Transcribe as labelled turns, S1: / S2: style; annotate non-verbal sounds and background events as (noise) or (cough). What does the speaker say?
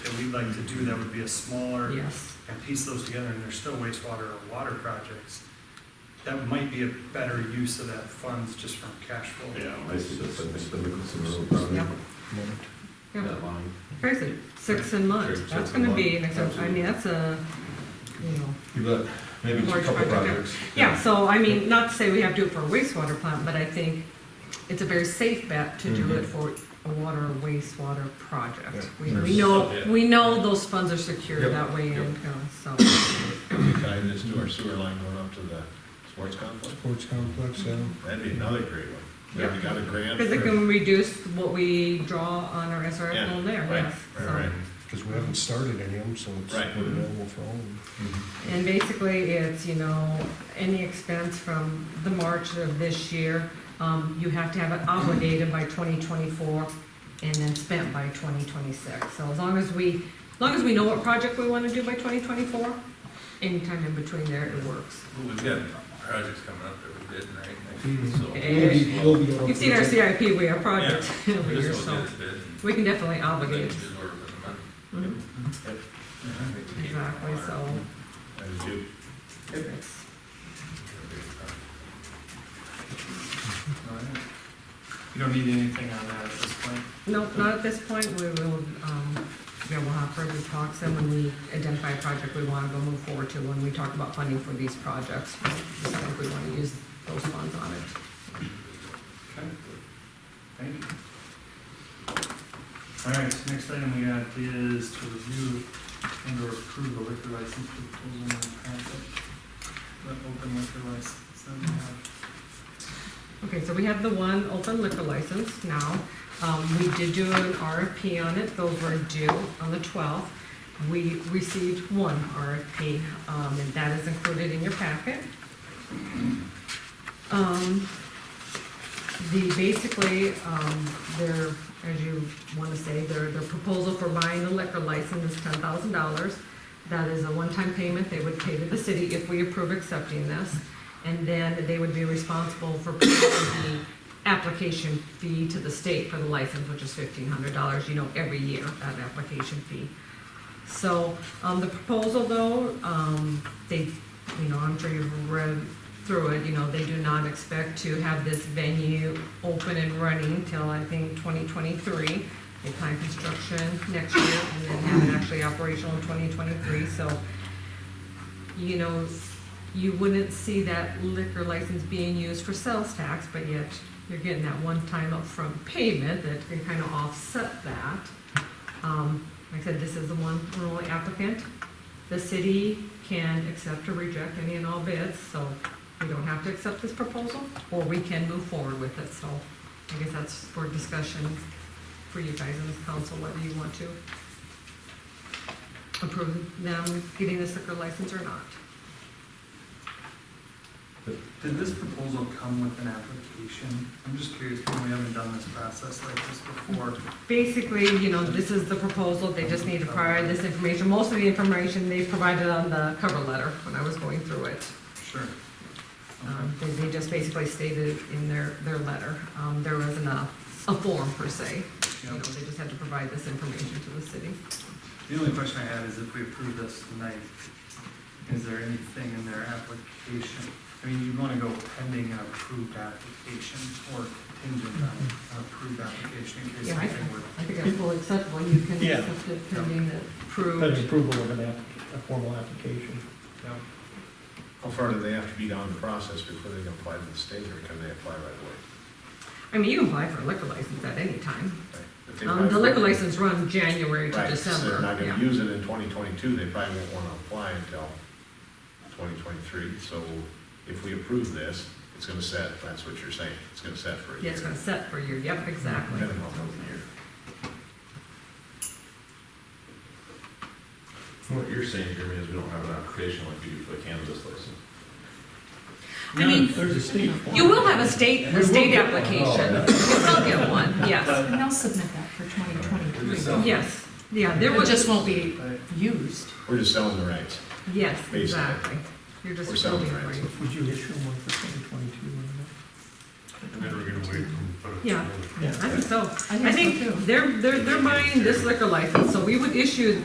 S1: we'd like to do that would be a smaller,
S2: Yes,
S1: and piece those together, and they're still wastewater or water projects, that might be a better use of that funds just from cash flow.
S3: Yeah,
S4: I see that's like Mr. Nicholson Road
S5: Mm-hmm.
S4: probably.
S2: Yep. yeah,
S4: That line.
S2: crazy, six in March,
S4: Six
S2: that's
S4: in
S2: gonna
S4: March.
S2: be, an exception. I mean, that's a, you know.
S6: You bet. Maybe just a
S2: Large
S6: couple
S2: project, yeah.
S6: projects.
S2: Yeah, so I mean, not to say we have to do it for a wastewater plant, but I think it's a very safe bet to do
S6: Mhm.
S2: it for a water or wastewater project.
S6: Yeah.
S2: We
S6: There's-
S2: we know, we know those funds are secure
S6: Yep.
S2: that way,
S6: Yep.
S2: and, uh, so,
S3: Could we tie this to our sewer line going up to the sports complex?
S6: Sports complex, yeah.
S2: Mm-hmm.
S3: That'd be another great one. Yeah, we got a grant.
S2: because it
S3: for-
S2: can reduce what we draw on our SRF
S3: Yeah,
S2: loan there,
S3: right,
S2: yes.
S3: right,
S2: so.
S3: right.
S7: Because we haven't started any of them, so it's
S3: Right.
S7: available for all of them.
S6: Mm-hmm.
S2: And basically, it's, you know, any expense from the March of this year, um, you have to have it obligated by twenty twenty-four and then spent by twenty twenty-six. So as long as we, as long as we know what project we wanna do by twenty twenty-four, anytime in between there, it works.
S5: Well, We've got projects coming up that we're bidding,
S6: Mhm.
S5: right?
S2: We'll be-
S5: So,
S2: You've seen our CIP, we have projects (laughs)
S5: we
S2: every year,
S5: just
S2: so
S5: don't get bid and
S2: we can definitely
S5: they
S2: obligate.
S5: can do it within a
S2: Mhm,
S5: month. I think we need more.
S2: Exactly, so
S3: I do.
S2: it's,
S1: You don't need anything on that at this point?
S2: no, not at this point, we will, um, yeah, we'll have further talks and when we identify a project we wanna go move forward to, when we talk about funding for these projects, we decide if we wanna use those funds on it.
S1: Okay. Thank you. All right, so next item we got is to review and or approve the liquor license proposal and contract. The open liquor license that we have.
S2: Okay, so we have the one open liquor license now. Um, we did do an RFP on it, those were due on the twelfth. We received one RFP, um, and that is included in your packet. Um, the, basically, um, their, as you wanna say, their, their proposal for buying the liquor license is ten thousand dollars. That is a one-time payment they would pay to the city if we approve accepting this. And then they would be responsible for paying the application fee to the state for the license, which is fifteen hundred dollars, you know, every year, that application fee. So, um, the proposal though, um, they, you know, I'm sure you've read through it, you know, they do not expect to have this venue open and running till, I think, twenty twenty-three. They plan construction next year and then have it actually operational in twenty twenty-three, so, you know, you wouldn't see that liquor license being used for sales tax, but yet you're getting that one-time upfront payment that can kind of offset that. Um, like I said, this is the one and only applicant. The city can accept or reject any and all bids, so we don't have to accept this proposal, or we can move forward with it, so I guess that's for discussion for you guys in this council, whether you want to approve them getting this liquor license or not.
S1: Did this proposal come with an application? I'm just curious, when we haven't done this process like this before.
S2: Basically, you know, this is the proposal, they just need to provide this information, most of the information they provided on the cover letter when I was going through it.
S1: Sure. Okay.
S2: Um, They, they just basically stated in their, their letter, um, there wasn't a, a form per se. You know,
S1: Yeah.
S2: they just had to provide this information to the city.
S1: The only question I had is if we approve this tonight, is there anything in their application? I mean, you wanna go pending an approved application or contingent on an approved application in case
S2: Yeah, I-
S1: something were.
S2: I think that's fully acceptable, you can
S7: Yeah.
S2: accept it pending the
S7: That's
S2: approved.
S7: approval of an app, a formal application.
S3: How far do they have to be down the process before they can apply to the state, or can they apply right away?
S2: I mean, you can apply for a liquor license at any time.
S3: Right? If they
S2: Um,
S3: apply
S2: the
S3: for-
S2: liquor license runs January to
S3: Right, so they're
S2: December,
S3: not
S2: yeah.
S3: gonna use it in twenty twenty-two, they probably won't wanna apply until twenty twenty-three, so if we approve this, it's gonna set, that's what you're saying, it's gonna set for a year.
S2: Yeah, it's gonna set for you, yep, exactly.
S3: Minimum of a year.
S4: What you're saying, Jeremy, is we don't have an application like we do for the cannabis license.
S2: I mean,
S7: There's a state.
S2: you will have a state, a state application, you will get one, yes,
S8: And they'll submit that for
S5: We're just
S8: 2023.
S5: selling.
S2: yes, yeah, there
S8: It
S2: was,
S8: just won't be used.
S3: We're just selling the rights.
S2: yes,
S3: Basically.
S2: exactly. You're just
S3: Or selling
S2: building
S3: rights.
S2: right.
S7: Would you issue one for twenty twenty-two?
S9: And then we're gonna wait and put it.
S2: Yeah. I think so.
S8: I
S2: I
S8: think so
S2: think
S8: too.
S2: they're, they're, they're buying this liquor license, so we would issue